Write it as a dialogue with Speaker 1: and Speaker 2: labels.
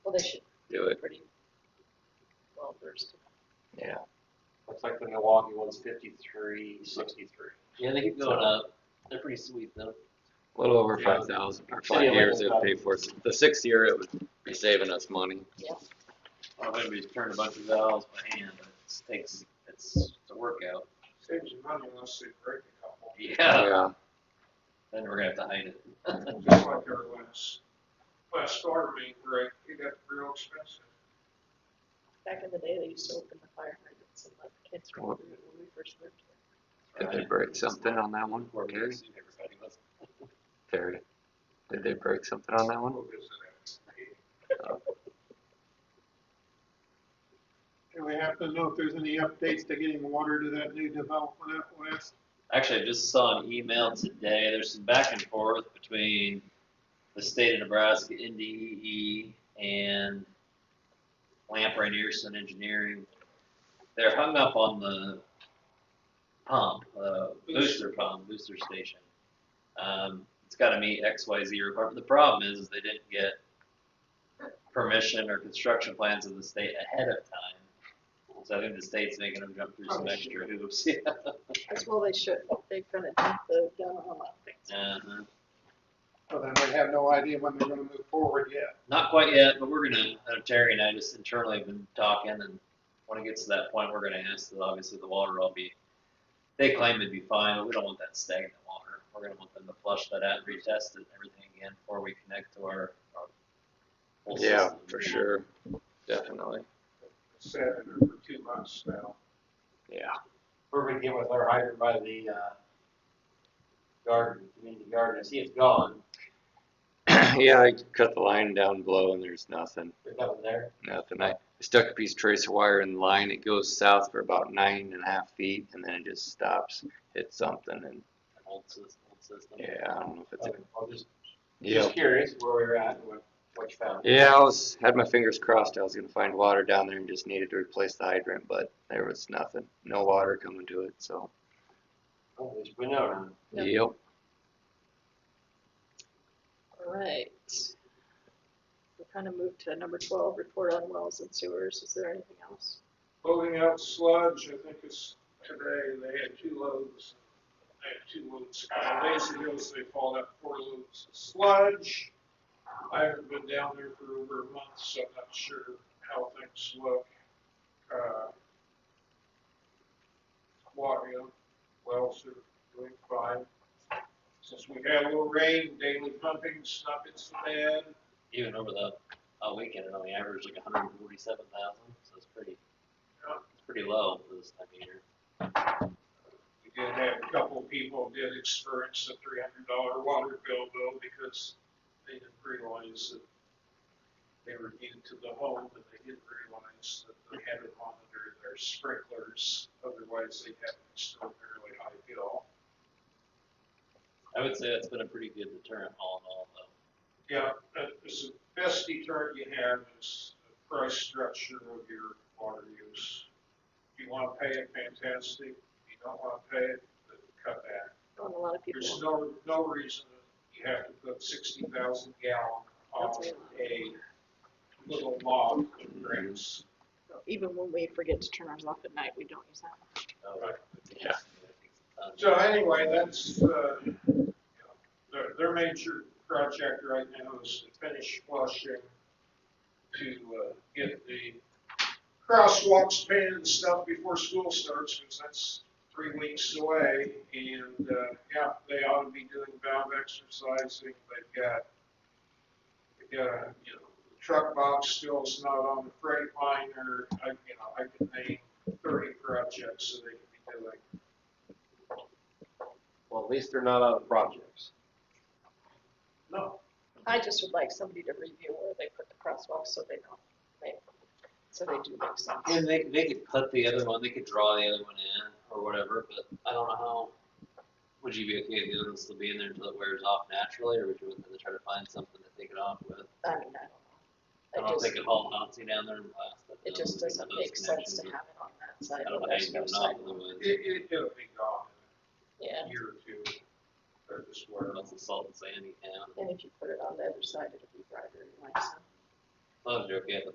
Speaker 1: Well, they should
Speaker 2: do it.
Speaker 1: pretty well versed.
Speaker 2: Yeah.
Speaker 3: Looks like the Milwaukee one's fifty-three, sixty-three.
Speaker 1: Yeah, they keep going up. They're pretty sweet though.
Speaker 2: A little over
Speaker 3: Yeah.
Speaker 2: five thousand, or
Speaker 3: Yeah,
Speaker 2: five
Speaker 3: like
Speaker 2: years it would
Speaker 3: about-
Speaker 2: pay for it. The sixth year, it would be saving us money.
Speaker 4: I'm gonna be turning a bunch of valves by hand. It takes, it's, it's a workout.
Speaker 3: Saves you money unless they break a couple,
Speaker 4: Yeah, then we're gonna have to hide it.
Speaker 3: just like our last, last storm main break, it got real expensive.
Speaker 1: Back in the day, they used to open the fire hydrants and let the kids run through it when we first lived here.
Speaker 2: Did they break something on that one?
Speaker 4: We're
Speaker 2: Terry?
Speaker 4: mixing everybody with-
Speaker 2: Terry, did they break something on that one?
Speaker 3: What is it?
Speaker 5: And we happen to know if there's any updates to getting water to that new development out west?
Speaker 4: Actually, I just saw an email today. There's some back and forth between the state of Nebraska, NDEE, E, and Lamp Rainierson Engineering. They're hung up on the pump, uh, booster pump, booster station. Um, it's gotta meet X, Y, Z requirement. The problem is, is they didn't get permission or construction plans of the state ahead of time. So I think the state's making them jump through some extra hoops.
Speaker 1: As well, they should. They're gonna dump the gun on a lot of things.
Speaker 4: Uh-huh.
Speaker 5: Well, then we have no idea when they're gonna move forward yet.
Speaker 4: Not quite yet, but we're gonna, uh, Terry and I just internally have been talking and when it gets to that point, we're gonna ask that obviously the water will be, they claim it'd be fine, but we don't want that stagnant water. We're gonna want them to flush that out and retest it and everything again before we connect to our, our whole
Speaker 2: Yeah,
Speaker 4: system.
Speaker 2: for sure, definitely,
Speaker 3: Sat in there for two months now.
Speaker 2: yeah.
Speaker 6: we're gonna get with our hydrant by the, uh, garden, community garden, I see it's gone,
Speaker 2: Yeah, I cut the line down below and there's nothing,
Speaker 6: there's nothing there.
Speaker 2: nothing. I stuck a piece of tracer wire in the line, it goes south for about nine and a half feet and then it just stops, hits something and,
Speaker 4: An Old system, old system.
Speaker 2: yeah, I don't know if it's.
Speaker 6: Okay,
Speaker 2: a-
Speaker 6: I'm just,
Speaker 2: Yeah,
Speaker 6: just curious where we're at and what, what you found.
Speaker 2: yeah, I was, had my fingers crossed I was gonna find water down there and just needed to replace the hydrant, but there was nothing, no water coming to it, so.
Speaker 6: Oh, there's been no one.
Speaker 1: Yep.
Speaker 2: Yep.
Speaker 1: All right. We kind of moved to number twelve, report on wells and sewers. Is there anything else?
Speaker 3: Loading out sludge, I think it's today, they had two loads. They had two loads, a couple days ago, so they hauled out four loads of sludge. I haven't been down there for over a month, so I'm not sure how things look. Uh, Water, wells are doing fine. Since we had a little rain, daily pumping's not been so bad.
Speaker 4: Even over the, uh, weekend, it only averaged like hundred and forty-seven thousand, so it's pretty,
Speaker 3: Yeah.
Speaker 4: it's pretty low for this time of year.
Speaker 3: We did have a couple people did experience a three hundred dollar water bill though, because they didn't realize that they were new to the home, and they didn't realize that they had to monitor their sprinklers, otherwise they'd have an extraordinarily high bill.
Speaker 4: I would say that's been a pretty good deterrent all in all, though.
Speaker 3: Yeah, that is the best deterrent you have is the price structure of your water use. If you wanna pay it, fantastic. If you don't wanna pay it, then cut back.
Speaker 1: On a lot of people.
Speaker 3: There's no, no reason you have to put sixty thousand gallon on
Speaker 1: That's
Speaker 3: a little log of grass.
Speaker 1: Even when we forget to turn ours off at night, we don't use that.
Speaker 4: Oh,
Speaker 3: Right.
Speaker 2: Yeah.
Speaker 4: Um,
Speaker 3: So anyway, that's, uh, you know, their, their major project right now is to finish flushing to, uh, get the crosswalks painted and stuff before school starts, because that's three weeks away. And, uh, yeah, they ought to be doing valve exercising. They've got, they've got, a, you know, truck box still is not on the freight liner. I, you know, I could name thirty projects that they could be doing.
Speaker 6: Well, at least they're not out of projects.
Speaker 3: No.
Speaker 1: I just would like somebody to review where they put the crosswalk so they know, right? So they do make sense.
Speaker 4: And they, they could put the other one, they could draw the other one in or whatever, but I don't know how. Would you be okay if the other one still being there until it wears off naturally, or would you want them to try to find something to take it off with?
Speaker 1: I mean, I
Speaker 4: I
Speaker 1: don't know. I
Speaker 4: don't
Speaker 1: just,
Speaker 4: think it all Nazi down there and blast it.
Speaker 1: it just
Speaker 4: down,
Speaker 1: doesn't
Speaker 4: those
Speaker 1: make sense to
Speaker 4: connections.
Speaker 1: have it on that
Speaker 4: I
Speaker 1: side.
Speaker 4: don't know
Speaker 1: when
Speaker 4: how you
Speaker 1: there's no
Speaker 4: can
Speaker 1: side.
Speaker 4: knock otherwise,
Speaker 3: It, it, it'll be gone
Speaker 1: Yeah,
Speaker 3: in a year or two. Or just where.
Speaker 4: once it's salt and sandy, yeah.
Speaker 1: and if you put it on the other side, it'll be brighter and nicer.
Speaker 4: I was joking,